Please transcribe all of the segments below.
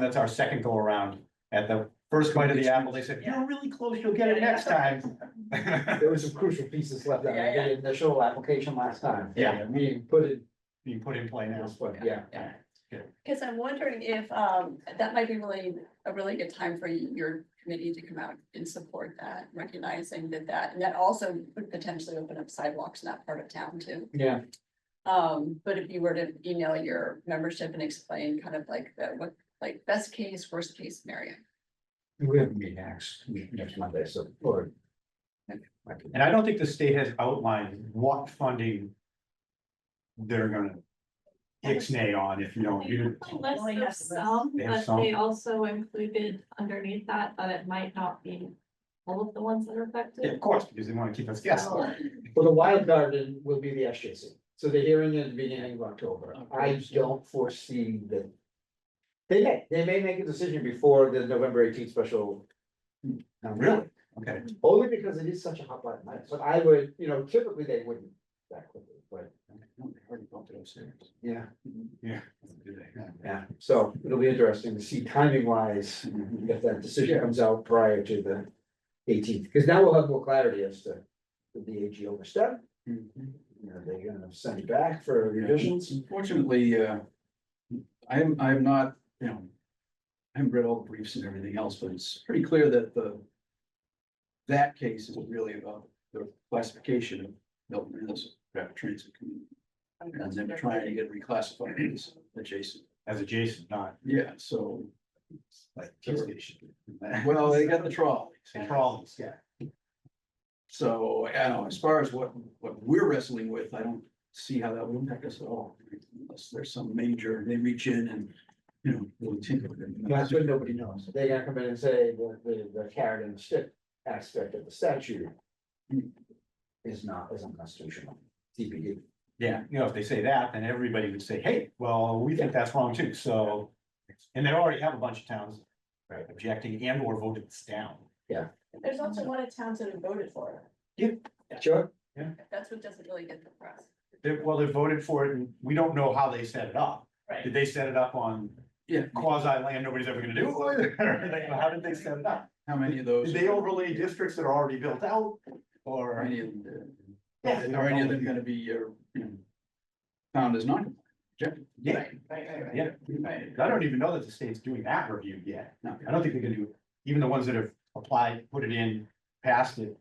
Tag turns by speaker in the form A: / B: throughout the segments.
A: That's our second go around. At the first bite of the apple, they said, you're really close, you'll get it next time.
B: There were some crucial pieces left out
C: Yeah,
B: of
C: yeah.
B: the initial application last time.
A: Yeah.
B: We put it
A: Being put in play
B: in
A: now.
B: this one, yeah.
C: Cause I'm wondering if, um, that might be really, a really good time for your committee to come out and support that, recognizing that that, and that also would potentially open up sidewalks in that part of town too.
B: Yeah,
C: Um, but if you were to email your membership and explain kind of like the, what, like best case, worst case scenario.
B: we have a meeting next, next Monday, so, or. I can-
A: And I don't think the state has outlined what funding. They're gonna. Ixnay on if you don't,
D: They
A: you,
D: have a list
C: Only
D: of
C: have some.
D: some,
A: They have
D: but they
A: some.
D: also included underneath that, that it might not be all of the ones that are
A: Yeah, of
D: affected.
A: course, because they wanna keep us guessing.
D: So,
B: Well, the wild garden will be the SJC, so the hearing is beginning of October, I don't foresee that. They may, they may make a decision before the November eighteenth special. um,
A: Really? Okay,
B: Only because it is such a hot button, item, but I would, you know, typically they wouldn't that quickly, but, yeah,
A: yeah.
B: yeah, so it'll be interesting to see timing wise. If that decision comes out prior to the eighteenth, because now we'll have more clarity as to did the AG overstep,
E: Mm-hmm.
B: you know, they're gonna send it back for revisions.
E: Unfortunately, uh, I am, I am not, you know. I haven't read all the briefs and everything else, but it's pretty clear that the. That case is really about the classification of Milton as a rapid transit community. And then trying to get reclassified as adjacent.
A: As adjacent, not
E: Yeah, so,
A: like. police station.
E: well, they got the trolley.
A: And Problems, yeah.
E: So, I don't know, as far as what, what we're wrestling with, I don't see how that would impact us at all. Unless there's some major, they reach in and, you know, really tinker with it.
B: That's what nobody knows, they're gonna come in and say the, the, the carrot and stick aspect of the statute. Is not, is unconstitutional, TBD.
A: Yeah, you know, if they say that, then everybody would say, hey, well, we think that's wrong too, so. And they already have a bunch of towns
B: Right.
A: objecting and or voted this down.
C: There's also one of towns that have voted for it.
B: Sure,
C: That's what doesn't really get the press.
A: They, well, they voted for it and we don't know how they set it up. Did
C: Right.
A: they set it up on
E: Yeah,
A: quasi land nobody's ever gonna do? Or they- How did they set it up?
E: how many of those?
A: Did they overlay districts that are already built out
E: Are
A: or?
E: any of them, uh,
A: Yeah, they don't
E: are any of them
A: know.
E: gonna be, uh, you know, found as non? compliant
A: Yeah, yeah. I don't even know that the state's doing that review yet. I don't think they're gonna do, it. even the ones that have applied, put it in, passed it.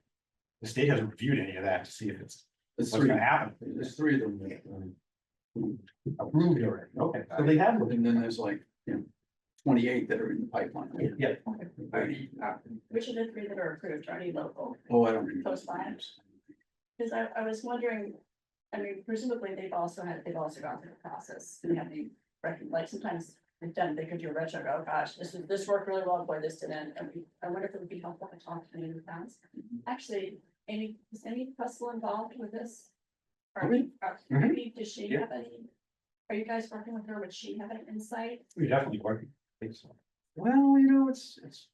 A: The state hasn't reviewed any of that to see if it's,
E: There's
A: what's
E: three,
A: gonna happen.
E: there's three of them. that, um,
A: Approved already, okay, so they have,
E: And then there's like, you know, twenty-eight that are in the pipeline.
A: yeah,
C: Which of the three that are approved are any local?
E: Oh, I don't. remember.
C: Those lines? Cause I, I was wondering, I mean, presumably they've also had, they've also gone through the process and have the, record- like sometimes they've done, they could do a retro, oh gosh, this is, this worked really well, boy, this didn't. And we, I wonder if it would be helpful to talk to any of the towns.
A: Mm-hmm.
C: Actually, any, is any Puzzle involved with this? Are we, are,
A: Mhm.
C: we- does she
A: Yeah.
C: have any? Are you guys working with her? Would she have any insight?
A: we definitely work. I think so.
E: Well, you know, it's, it's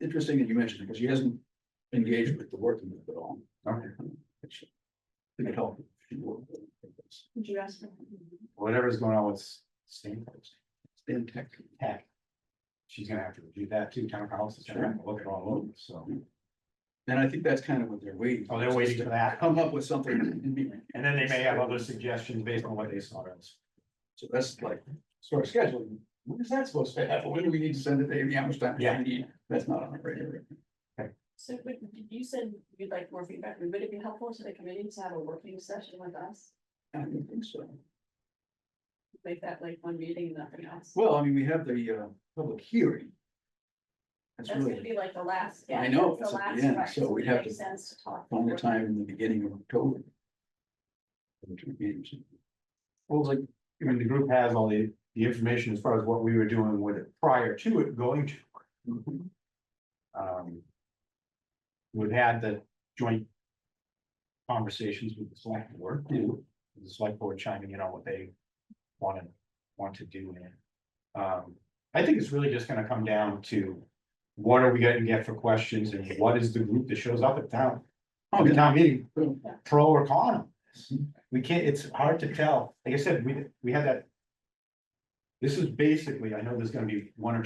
E: interesting that you mentioned it, because she hasn't engaged with the working group at all.
A: Okay.
E: Which I think it helped. if she were.
C: Would you ask her?
A: Whatever's going on with state
E: Stan Tech.
A: tech. She's gonna have to review that too, town council, she's gonna have to look at all of them, so.
E: And I think that's kind of what they're waiting.
A: Oh, they're waiting for that,
E: Come up with something and be,
A: and then they may have other suggestions based on what they saw else.
E: so that's like, sort of scheduling. When is that supposed to happen? When do we need to send it to Amy? How much time do
A: Yeah.
E: we need? That's not on the radar.
C: So would, you said you'd like more feedback. Would it be helpful to the committee to have a working session with us?
E: I don't think so.
C: make that like one meeting, nothing else.
E: Well, I mean, we have the, uh, public hearing. That's
C: That's gonna
E: really
C: be like the last.
E: I
C: yeah,
E: know,
C: that's
E: it's
C: The
E: at the
C: last,
E: end,
C: right,
E: so
C: so
E: we'd
C: it
E: have
C: makes
E: to
C: sense to talk.
E: on the
C: more.
E: time in the beginning of October. Two meetings.
A: Well, it's like, I mean, the group has all the, the information as far as what we were doing with it prior to it going to. Um. We've had the joint. Conversations with the select board, too, the select board chiming in on what they wanted, want to do in it. Um, I think it's really just gonna come down to. What are we gonna get for questions and what is the group that shows up at town,
E: Oh,
A: at the
E: yeah.
A: town meeting,
E: Yeah.
A: pro or con? on this? We can't, it's hard to tell, like I said, we, we had that. This is basically, I know there's gonna be one or two